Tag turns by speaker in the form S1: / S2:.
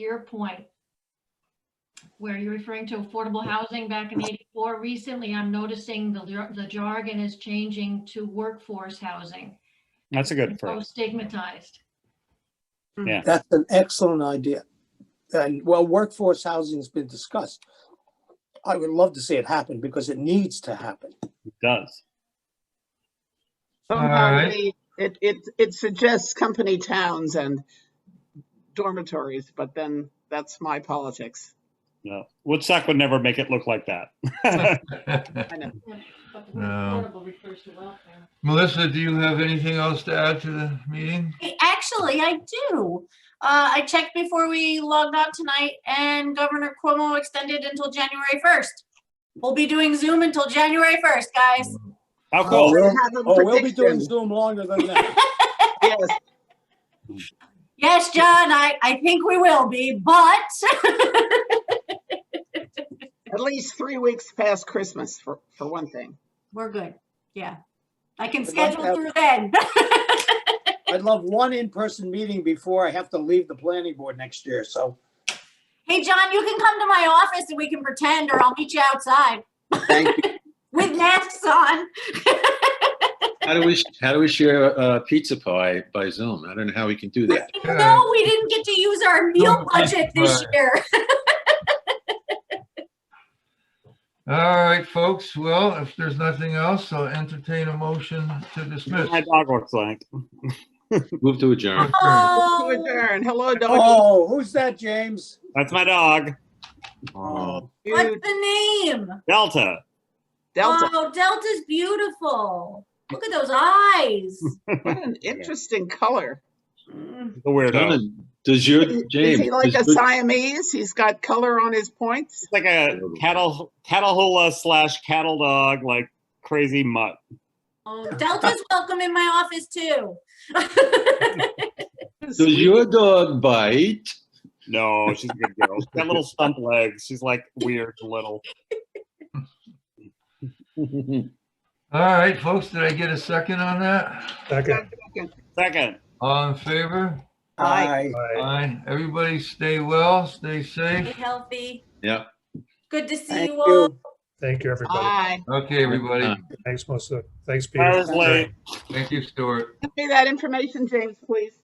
S1: your point, where you're referring to affordable housing back in 84, recently I'm noticing the jar- the jargon is changing to workforce housing.
S2: That's a good
S1: So
S2: phrase.
S1: stigmatized.
S3: That's an excellent idea. And well, workforce housing's been discussed. I would love to see it happen because it needs to happen.
S2: It does.
S4: Somehow
S5: Alright.
S4: they- it, it, it suggests company towns and dormitories, but then that's my politics.
S2: No, Woodstock would never make it look like that.
S1: But the
S5: word No.
S1: refers to welfare.
S5: Um, Melissa, do you have anything else to add to the meeting?
S6: Hey, Actually, I do. Uh, I checked before we logged on tonight and Governor Cuomo extended until January 1st. We'll be doing Zoom until January 1st, guys.
S2: How
S4: I
S2: cool.
S3: Well,
S4: have a
S3: Oh, we'll be doing
S4: prediction.
S3: Zoom longer than that.
S4: Yes,
S6: Yes, John, I, I think we will be, but
S4: at least three weeks past Christmas for, for one thing.
S6: we're good. Yeah. I can
S3: Good luck,
S6: schedule
S3: Ab.
S6: through then.
S3: I'd love one in-person meeting before I have to leave the planning board next year, so.
S6: Hey, John, you can come to my office and we can pretend or I'll meet you outside
S3: Thank you.
S6: with masks on.
S7: How do we, how do we share uh, pizza pie by Zoom? I don't know how we can do that.
S5: Yeah.
S6: No, we didn't get to use our meal
S5: No, that's
S6: budget this
S5: right.
S6: year.
S5: All right, folks. Well, if there's nothing else, I'll entertain a motion to dismiss.
S2: My dog looks like.
S7: Move to adjourn.
S4: To
S6: Oh.
S4: adjourn, hello, doggy.
S3: Oh, who's that, James?
S2: That's my dog,
S7: Oh.
S6: What's
S4: Dude,
S6: the name?
S2: Delta.
S4: Delta,
S6: Oh, Delta's beautiful. Look at those eyes.
S4: what an interesting color.
S2: The weirdo. It's
S7: Done. Does your,
S4: Is
S7: James?
S4: he like a
S7: does your-
S4: Siamese? He's got color on his points?
S2: like a cattle catahoola slash cattle dog, like crazy mutt.
S6: Oh, Delta's welcome in my office too.
S7: Does your dog bite?
S2: No, she's a good girl. She's got little stump legs. She's like weird little.
S5: All right, folks, did I get a second on that?
S4: Second.
S2: Second,
S5: All in favor?
S4: Aye.
S3: Hi.
S5: Aye. Everybody stay well, stay
S6: Be
S5: safe.
S6: healthy.
S7: Yeah.
S6: Good to see
S3: Thank
S6: you all.
S3: you.
S8: Thank you, everybody.
S4: Aye.
S5: Okay, everybody.
S8: Thanks, Melissa. Thanks,
S2: I was
S8: Peter.
S2: late.
S5: Thank you, Stuart.
S4: Give me that information, James, please.